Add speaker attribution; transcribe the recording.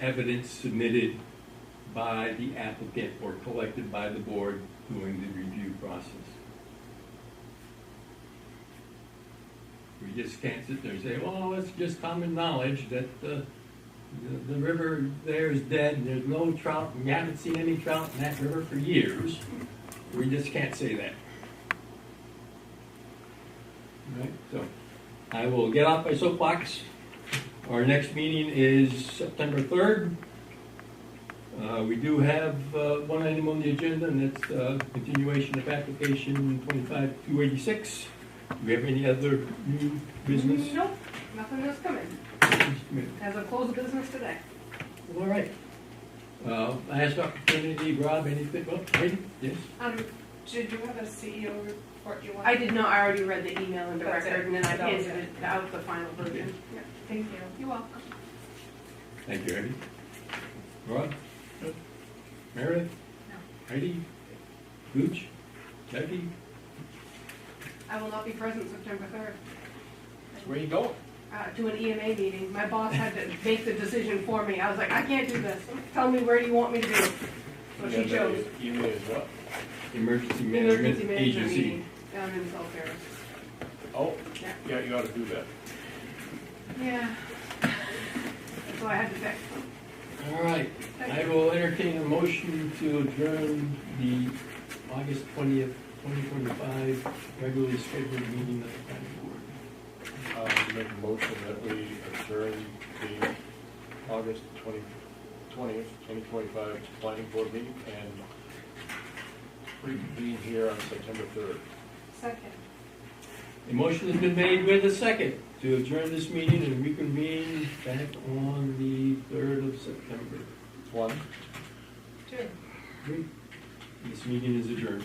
Speaker 1: evidence submitted by the applicant or collected by the board during the review process. We just can't sit there and say, well, it's just common knowledge that uh, the, the river there is dead, and there's no trout, and we haven't seen any trout in that river for years. We just can't say that. Right, so, I will get off my soapbox. Our next meeting is September third. Uh, we do have, uh, one item on the agenda, and that's, uh, continuation of application twenty-five two eighty-six. Do we have any other new business?
Speaker 2: Nope, nothing has come in. As a closed business today.
Speaker 1: All right. Uh, last opportunity, Rob, anything, well, wait, yes?
Speaker 3: Um, did you have a
Speaker 2: E
Speaker 3: CEO report you wanted?
Speaker 2: I did not, I already read the email into
Speaker 3: That's it.
Speaker 2: record and then I
Speaker 3: That was
Speaker 2: handed it out the final version.
Speaker 3: Thank you. You're welcome.
Speaker 1: Thank you, Heidi. Rob? Meredith?
Speaker 3: No.
Speaker 1: Heidi? Gooch? Jackie?
Speaker 2: I will not be present September third,
Speaker 4: Where you going?
Speaker 2: uh, to an EMA meeting. My boss had to make the decision for me. I was like, I can't do this. Tell me where you want me to be. So Oh, she chose
Speaker 4: You may as well.
Speaker 1: Emergency
Speaker 2: emergency
Speaker 1: Management
Speaker 2: management
Speaker 1: Agency.
Speaker 2: meeting down in South Paris.
Speaker 4: Oh,
Speaker 2: Yeah.
Speaker 4: yeah, you ought to do that.
Speaker 2: Yeah. That's why I had to pick.
Speaker 1: All right, I will entertain a motion to adjourn the August twentieth, twenty twenty-five regularly scheduled meeting of the planning board.
Speaker 4: Uh, make a motion that we adjourn the August twenty, twentieth, twenty twenty-five planning board meeting and reconvene here on September third.
Speaker 2: Second.
Speaker 1: A motion has been made with a second to adjourn this meeting and reconvene back on the third of September.
Speaker 4: One.
Speaker 3: Two.
Speaker 1: This meeting is adjourned.